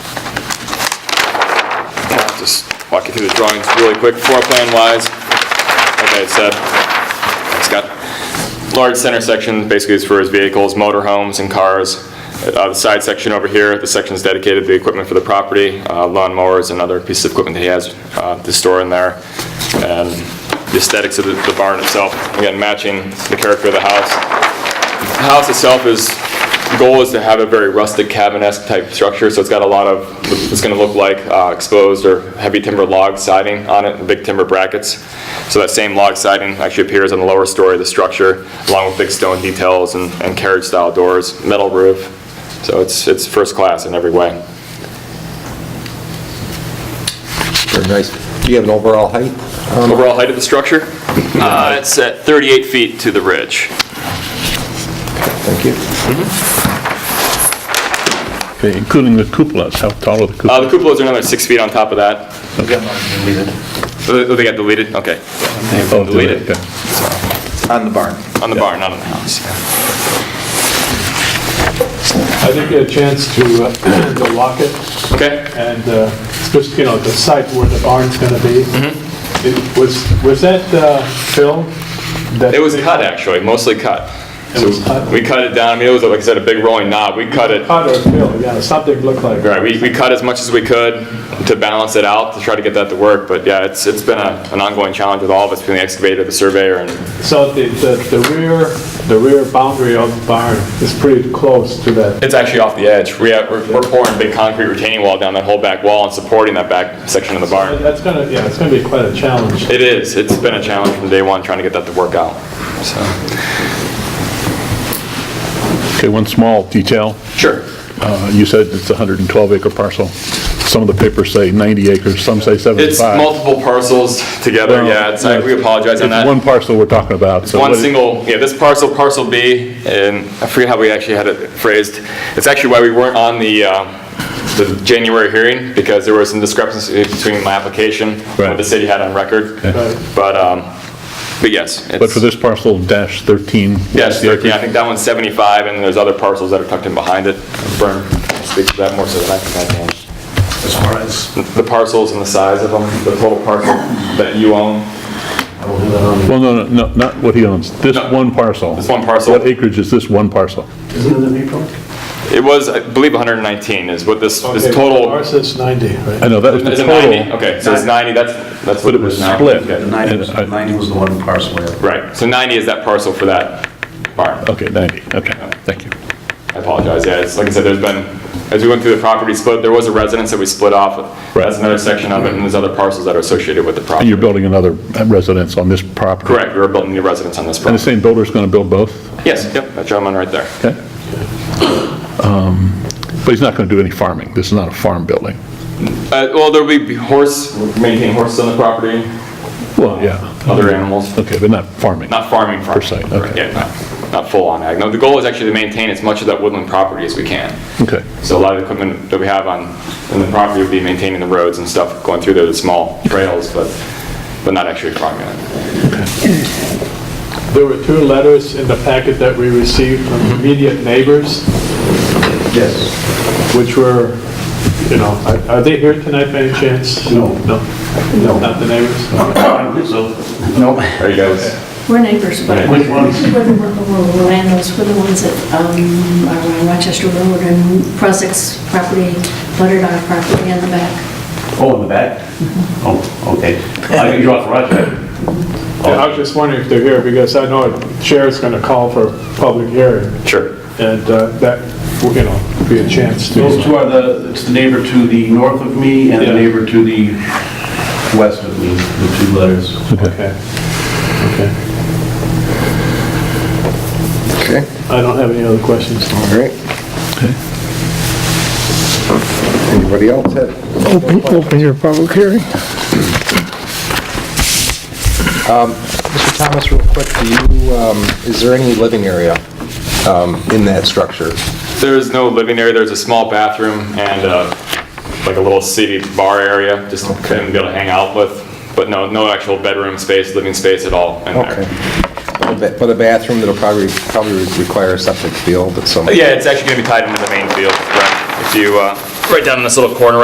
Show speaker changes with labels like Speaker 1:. Speaker 1: walk you through the drawings really quick, floor plan wise, like I had said, it's got large center section, basically is for his vehicles, motor homes and cars. Uh, The side section over here, the section is dedicated to the equipment for the property, uh, lawn mowers and other pieces of equipment that he has uh, to store in there. And the aesthetics of the the barn itself, again, matching the character of the house. The house itself is, the goal is to have a very rustic cabin-esque type structure, so it's got a lot of, it's gonna look like uh, exposed or heavy timber log siding on it, and big timber brackets. So that same log siding actually appears on the lower story of the structure, along with big stone details and and carriage-style doors, metal roof. So it's, it's first class in every way.
Speaker 2: Very nice. Do you have an overall height?
Speaker 1: Overall height of the structure? Uh, It's at 38 feet to the ridge.
Speaker 2: Thank you.
Speaker 3: Okay, including the cupolas, how tall are the
Speaker 1: Uh, The
Speaker 3: cupolas?
Speaker 1: cupolas are another six feet on top of that. Oh, They got deleted, okay.
Speaker 3: Oh, do they?
Speaker 1: deleted.
Speaker 3: Okay.
Speaker 4: On the barn.
Speaker 1: On the barn, not on the house.
Speaker 5: I didn't get a chance to, uh, to walk it,
Speaker 1: Okay?
Speaker 5: and, uh, especially, you know, the site where the barn's gonna be.
Speaker 1: Mm-hmm.
Speaker 5: It was, was that, uh, film?
Speaker 1: It was cut, actually, mostly cut.
Speaker 5: It was cut?
Speaker 1: We cut it down, I mean, it was, like I said, a big rolling knob, we cut it,
Speaker 5: Cut or film, yeah, something looked like.
Speaker 1: right, we, we cut as much as we could to balance it out, to try to get that to work, but yeah, it's, it's been a, an ongoing challenge with all of us, between the excavator, the surveyor, and
Speaker 5: So the, the the rear, the rear boundary of the barn is pretty close to that.
Speaker 1: it's actually off the edge. We have, we're we're pouring a big concrete retaining wall down that whole back wall and supporting that back section of the barn.
Speaker 5: That's gonna, yeah, it's gonna be quite a challenge.
Speaker 1: It is, it's been a challenge from day one, trying to get that to work out, so.
Speaker 3: Okay, one small detail.
Speaker 1: Sure.
Speaker 3: Uh, You said it's a 112 acre parcel. Some of the papers say 90 acres, some say 75.
Speaker 1: It's multiple parcels together,
Speaker 3: Well,
Speaker 1: yeah, it's, I- we apologize on
Speaker 3: It's
Speaker 1: that.
Speaker 3: one parcel we're talking about. so
Speaker 1: One
Speaker 3: what-
Speaker 1: single, yeah, this parcel, parcel B, and I forget how we actually had it phrased. It's actually why we weren't on the, um, the January hearing, because there was some discrepancy between my application and what
Speaker 3: Right.
Speaker 1: the city had on record.
Speaker 5: Right.
Speaker 1: But, um, but yes.
Speaker 3: But
Speaker 1: it's-
Speaker 3: for this parcel dash 13. what's
Speaker 1: Yes,
Speaker 3: the
Speaker 1: yeah,
Speaker 3: acreage?
Speaker 1: I think that one's 75, and there's other parcels that are tucked in behind it. Bern speaks to that more so than I can. As far as? The parcels and the size of them, the total parcel that you own.
Speaker 3: Well, no, no, no, not what he owns, this
Speaker 1: No.
Speaker 3: one parcel.
Speaker 1: This one parcel.
Speaker 3: What acreage is this one parcel?
Speaker 1: It was, I believe, 119 is what this, this
Speaker 5: Okay,
Speaker 1: total.
Speaker 5: Ours is 90, right?
Speaker 3: I know, that was the
Speaker 1: Is it
Speaker 3: total.
Speaker 1: 90? Okay, so it's 90, that's, that's what it
Speaker 3: But it was
Speaker 1: was now.
Speaker 3: split.
Speaker 1: Okay.
Speaker 4: 90 was,
Speaker 3: And I-
Speaker 4: 90 was the one parcel. we had.
Speaker 1: Right, so 90 is that parcel for that barn.
Speaker 3: Okay, 90, okay, thank you.
Speaker 1: I apologize, yeah, it's, like I said, there's been, as we went through the property split, there was a residence that we split off.
Speaker 3: Right.
Speaker 1: That's another section of it, and there's other parcels that are associated with the
Speaker 3: And
Speaker 1: property.
Speaker 3: you're building another residence on this property?
Speaker 1: Correct, we were building new residence on this
Speaker 3: And the
Speaker 1: property.
Speaker 3: same builder's going to build both,
Speaker 1: Yes, yep, that gentleman right there.
Speaker 3: okay? Um, But he's not going to do any farming, this is not a farm building.
Speaker 1: Uh, well, there'll be horse, maintaining horses on the property,
Speaker 3: Well, yeah.
Speaker 1: other animals.
Speaker 3: Okay, but not farming.
Speaker 1: Not farming, farming.
Speaker 3: se, okay.
Speaker 1: Yeah, not, not full-on ag. No, the goal is actually to maintain as much of that woodland property as we can.
Speaker 3: Okay,
Speaker 1: So a lot of the equipment that we have on, in the property would be maintaining the roads and stuff, going through there, the small trails, but, but not actually farming it.
Speaker 5: There were two letters in the packet that we received from immediate neighbors.
Speaker 4: Yes.
Speaker 5: which were, you know, are- are they here tonight by any chance?
Speaker 4: No.
Speaker 5: No,
Speaker 4: No.
Speaker 5: not the neighbors?
Speaker 4: No.
Speaker 1: Are you guys?
Speaker 6: We're neighbors, but
Speaker 1: Yeah.
Speaker 6: we're
Speaker 4: Which ones?
Speaker 6: the landowners, we're the ones that um, are on Rochester Road and Prosek's property, buttered our property in the back.
Speaker 7: Oh, in the back? Oh, okay. I think you're off Rochester.
Speaker 5: I was just wondering if they're here, because I know Chair's going to call for a public hearing,
Speaker 1: Sure.
Speaker 5: and uh, that, you know, be a chance
Speaker 7: Those
Speaker 5: to,
Speaker 7: two are the, it's the neighbor to the north of me and
Speaker 5: Yeah.
Speaker 7: the neighbor to the west of me, the two letters.
Speaker 5: okay. Okay.
Speaker 2: Okay,
Speaker 5: I don't have any other questions.
Speaker 2: all right. Anybody else have?
Speaker 8: Open, open your public hearing.
Speaker 2: Mr. Thomas, real quick, do you, um, is there any living area um, in that structure?
Speaker 1: There is no living area, there's a small bathroom and, uh, like a little seated bar area, just to kind of be able to hang out with, but no, no actual bedroom space, living space at all in there.
Speaker 2: Okay. But but a bathroom that'll probably, probably would require a septic field at some...
Speaker 1: Yeah, it's actually gonna be tied into the main field, correct? If you, uh, right down in this little corner